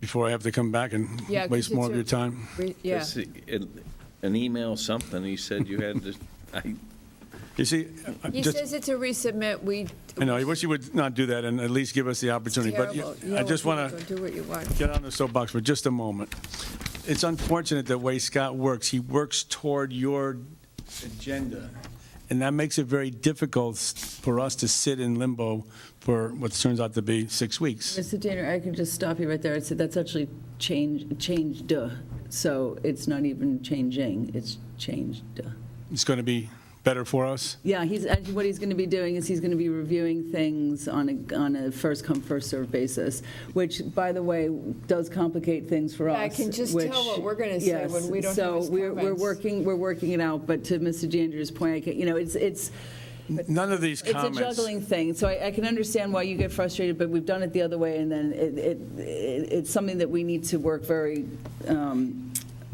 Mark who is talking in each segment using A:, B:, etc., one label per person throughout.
A: before I have to come back and
B: Yeah, 'cause
A: waste more
B: it's
A: of
B: a-
A: your time.
B: Re- Yeah,
C: Just, uh, an- An email, something, he said you had to, I,
A: You see, I
B: he
A: just,
B: says it's a resubmit, we.
A: I know, I wish you would not do that and at least give us the opportunity, but you-
B: Terrible.
A: I
B: No,
A: just
B: people
A: want to
B: don't Do what you want.
A: get on the soapbox for just a moment. It's unfortunate the way Scott works. He works toward your agenda, and that makes it very difficult for us to sit in limbo for what turns out to be six weeks.
D: Mr. Danner, I can just stop you right there. It's- That's actually change, changed, uh, so it's not even changing, it's changed. uh.
A: It's going to be better for us.
D: Yeah, he's, actually what he's going to be doing is he's going to be reviewing things on a, on a first-come, first-served basis, which, by the way, does complicate things for us.
B: Yeah, I can just tell
D: which-
B: what we're gonna say when
D: yes,
B: we don't have his
D: So we're, we're
B: comments.
D: working, we're working it out, but to Mr. Danner's point, I can- you know, it's, it's,
A: None of these
D: it's a
A: comments.
D: juggling thing, so I, I can understand why you get frustrated, but we've done it the other way, and then it, it, it- it's something that we need to work very, um,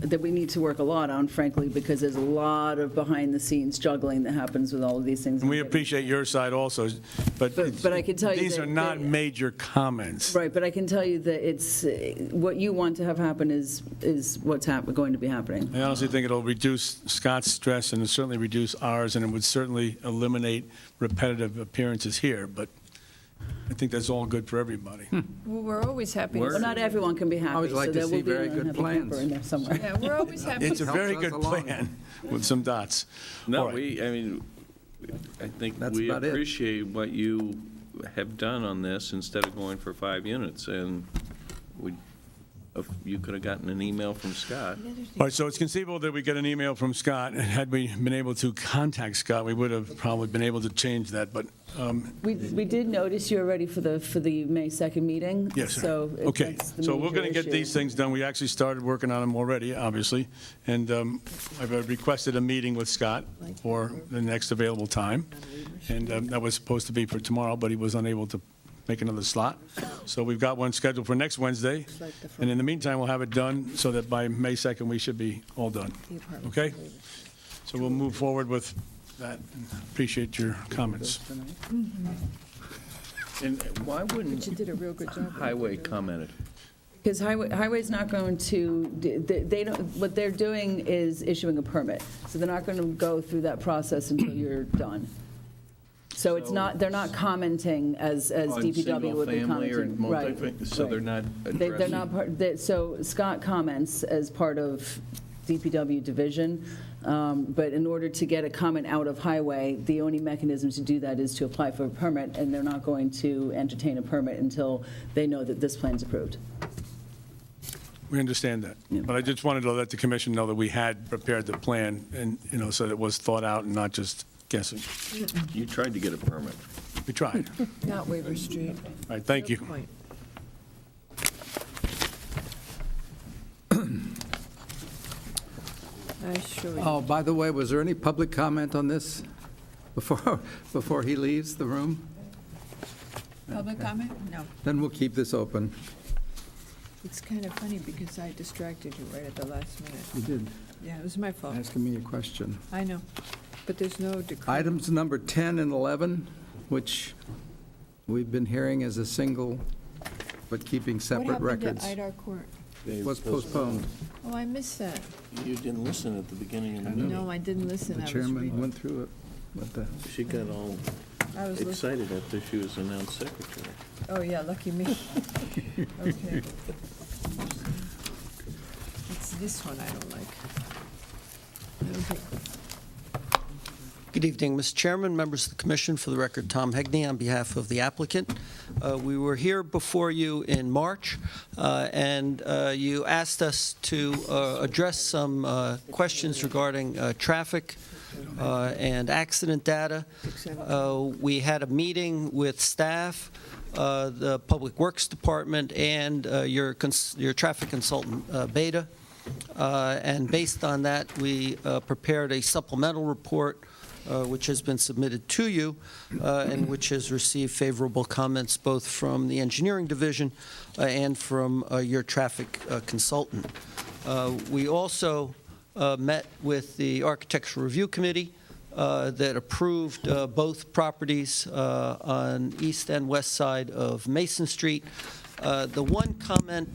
D: that we need to work a lot on, frankly, because there's a lot of behind-the-scenes juggling that happens with all of these things.
A: And we appreciate your side also, but.
D: But- but I can tell you
A: These
D: that-
A: are not
D: that-
A: major comments.
D: Right, but I can tell you that it's, eh, what you want to have happen is, is what's hap, going to be happening.
A: I honestly think it'll reduce Scott's stress and it'll certainly reduce ours, and it would certainly eliminate repetitive appearances here, but I think that's all good for everybody.
B: Well, we're always happy. to
C: We're-
D: Well,
B: see
D: not
B: you.
D: everyone can be happy.
E: would like
D: so
E: to
D: there
E: see
D: will be an
E: very good
D: unhappy camper
E: plans.
D: in there Somewhere.
B: Yeah, we're always happy.
A: It's a
B: to-
E: Helps
A: very
E: us
A: good
E: along.
A: plan with some dots. All
C: no,
A: right.
C: we, I mean, I think
E: That's
C: we
E: about it.
C: appreciate what you have done on this instead of going for five units, and we, if you could have gotten an email from Scott.
A: All right, so it's conceivable that we get an email from Scott, and had we been able to contact Scott, we would have probably been able to change that, but um,
D: We, we did notice you were ready for the, for the May 2nd meeting.
A: Yes, sir.
D: So if
A: Okay,
D: that's the
A: so we're
D: major
A: going to get
D: issue.
A: these things done. We actually started working on them already, obviously, and um, I've uh, requested a meeting with Scott for the next available time, and um, that was supposed to be for tomorrow, but he was unable to make another slot. So we've got one scheduled for next Wednesday, and in the meantime, we'll have it done so that by May 2nd, we should be all done. Okay? So we'll move forward with that. Appreciate your comments.
C: And why wouldn't
B: You did a real good job.
C: Highway commented?
D: Because highway, highway's not going to, they they don't, what they're doing is issuing a permit. So they're not going to go through that process until you're done. So it's not, they're not commenting as, as
C: On
D: DPW would be
C: single-family or
D: commenting. Right,
C: multifamily? So they're not
D: right. They- They're
C: addressing,
D: not, part- they- so Scott comments as part of DPW division, um, but in order to get a comment out of highway, the only mechanism to do that is to apply for a permit, and they're not going to entertain a permit until they know that this plan's approved.
A: We understand that. But I just wanted to let the commission know that we had prepared the plan and, you know, so that it was thought out and not just guessing.
C: you tried to get a permit.
A: We tried. All
B: Not Weaver Street.
A: right, thank you.
B: Good point. I sure,
E: Oh, by the way, was there any public comment on this before, before he leaves the room?
F: Public comment? No.
E: Then we'll keep this open.
F: It's kind of funny because I distracted you right at the last minute.
E: You did
F: Yeah, it was my fault.
E: asking me a question.
F: I know, but there's no decree.
E: Items number 10 and 11, which we've been hearing as a single, but keeping separate records,
F: What happened to Idar Court?
E: was postponed.
F: Oh, I missed that.
C: You didn't listen at the beginning of the
F: No, I didn't
E: The
F: listen. I was
E: chairman
F: reading.
E: went through it. What the-
C: She got all
F: I was listening.
C: excited after she was announced secretary.
F: Oh, yeah, lucky me. Okay. It's this one I don't like. I don't think-
G: Good evening, Mr. Chairman, members of the commission. For the record, Tom Hegney on behalf of the applicant. Uh, We were here before you in March, uh, and uh, you asked us to uh, address some uh, questions regarding uh, traffic uh, and accident data. Uh, We had a meeting with staff, uh, the Public Works Department, and uh, your cons- your traffic consultant, uh, Beta. Uh, And based on that, we uh, prepared a supplemental report, uh, which has been submitted to you, uh, and which has received favorable comments both from the engineering division uh, and from uh, your traffic uh, consultant. Uh, We also uh, met with the Architectural Review Committee uh, that approved uh, both properties uh, on east and west side of Mason Street. Uh, The one comment